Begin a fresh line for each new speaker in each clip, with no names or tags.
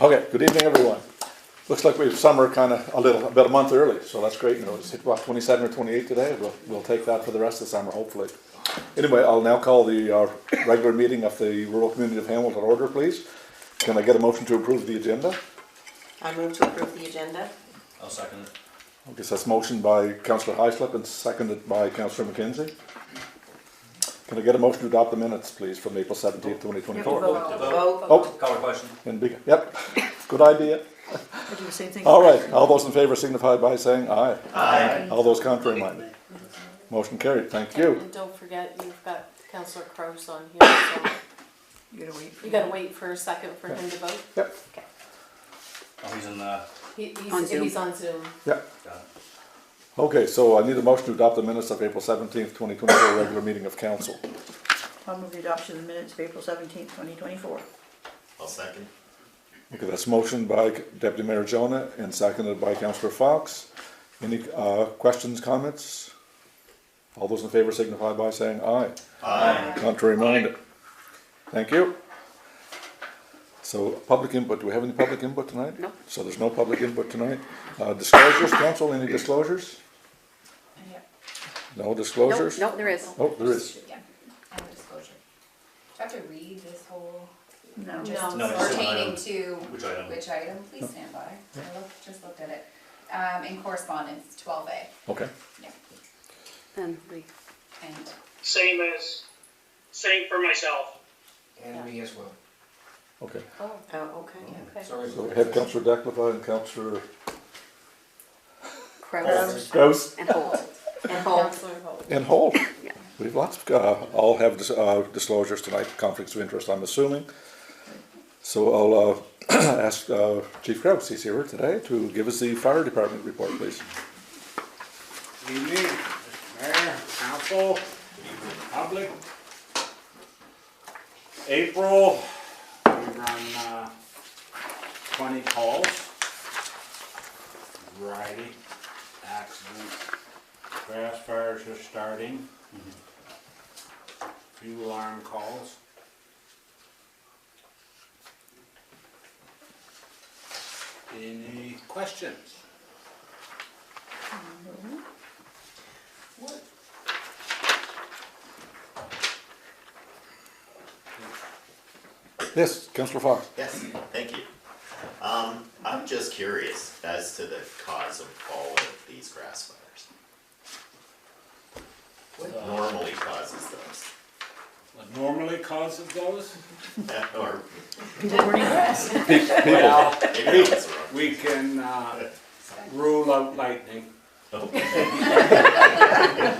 Okay, good evening, everyone. Looks like we've summer kind of a little, about a month early, so that's great news. Hit about twenty-seven or twenty-eight today, we'll, we'll take that for the rest of the summer, hopefully. Anyway, I'll now call the, uh, regular meeting of the rural community of Hamilton order, please. Can I get a motion to approve the agenda?
I move to approve the agenda.
I'll second it.
I guess that's motion by councillor Heislip and seconded by councillor McKenzie. Can I get a motion to adopt the minutes, please, from April seventeenth, twenty twenty-four?
Vote.
Oh,
Call the question.
and be, yep, good idea.
I do the same thing.
All right, all those in favor signify by saying aye.
Aye.
All those contrary minded. Motion carried, thank you.
And don't forget, you've got Councillor Crowe's on here, so
You gotta wait. for
you gotta wait for a second for him to vote.
Yep,
Oh, he's in the,
He,
On
he's,
Zoom.
he's on Zoom.
yep.
got it.
Okay, so I need a motion to adopt the minutes of April seventeenth, twenty twenty-four, regular meeting of council.
I'll move the adoption of the minutes of April seventeenth, twenty twenty-four.
I'll second.
Okay, that's motion by Deputy Mayor Jonah and seconded by Councillor Fox. Any, uh, questions, comments? All those in favor signify by saying aye.
Aye.
Contrary minded. Thank you. So, public input, do we have any public input tonight?
No.
So there's no public input tonight. Uh, disclosures, council, any disclosures? No disclosures?
no, there is.
Oh, there is.
Yeah, I have a disclosure. Do I have to read this whole
No.
just
No,
it's just an
pertaining
item.
to
Which item? Oh.
which item? Please stand by. I looked, just looked at it. Um, in correspondence, twelve A,
Okay,
yeah,
And we,
and
Same as, same for myself.
And me as well.
okay.
Oh,
Oh, okay.
okay.
Sorry.
So we have Councillor Decliffe and Councillor
Kraus
Gross
and Holt.
And hold.
Councillor Holt.
and Holt. We have lots, of, uh, all have dis- uh, disclosures tonight, conflicts of interest, I'm assuming. So I'll, uh, ask, uh, Chief Kraus, he's here today, to give us the fire department report, please.
Good Evening, Mr. Mayor, council, public. April, we run uh, twenty calls. Variety, accidents, grass fires are starting. Few alarm calls. Any questions?
Yes, Councillor Fox.
Yes, thank you. Um, I'm just curious as to the cause of all of these grass fires.
Uh,
What normally causes those?
What normally causes those?
Or
People burning grass.
Well,
maybe that's wrong.
we can uh, rule out lightning.
Oh,
Okay.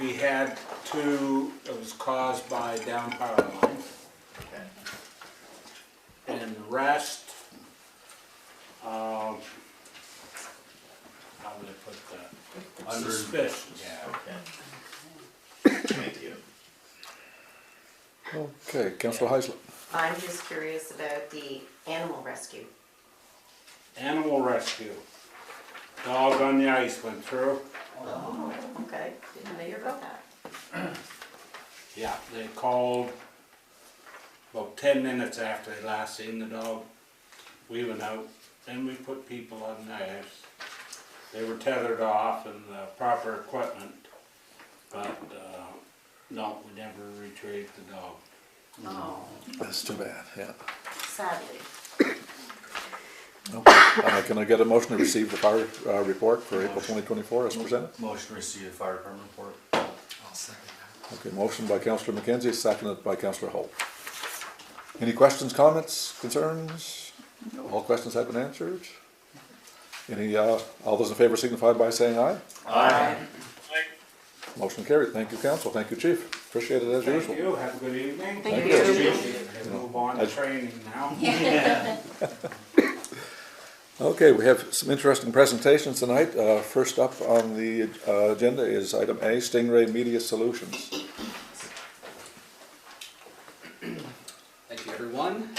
We had two, it was caused by down power line,
Okay.
and the rest, um, how would I put that?
Under-
Suspicious, yeah.
Okay. Thank you.
Okay, Councillor Heisler.
I'm just curious about the animal rescue.
Animal rescue. Dog on the ice went through.
Okay, didn't know about that.
Yeah, they called about ten minutes after they last seen the dog. We went out, then we put people on knives. They were tethered off and the proper equipment, but, uh, no, we never retrieved the dog.
Oh,
That's too bad, yeah.
sadly.
Uh, can I get a motion to receive the fire, uh, report for April twenty twenty-four as presented?
Motion to receive the fire department report.
I'll second that.
Okay, motion by Councillor McKenzie, seconded by Councillor Holt. Any questions, comments, concerns? All questions have been answered? Any, uh, all those in favor signify by saying aye.
Aye.
Like,
Motion carried. Thank you, council. Thank you, chief. Appreciate it as
Thank
usual.
you, have a good evening.
Thank
you. you.
Appreciate it. Move on to
As-
training now.
Okay, we have some interesting presentations tonight. Uh, first up on the, uh, agenda is item A, Stingray Media Solutions.
Thank you, everyone.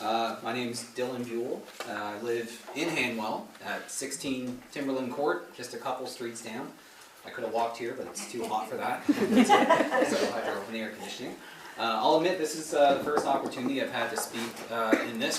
Uh, my name's Dylan Buell. Uh, I live in Hanwell at 16 Timberland Court, just a couple streets down. I could have walked here, but it's too hot for that. so I drove in air conditioning. Uh, I'll admit this is uh, the first opportunity I've had to speak uh, in this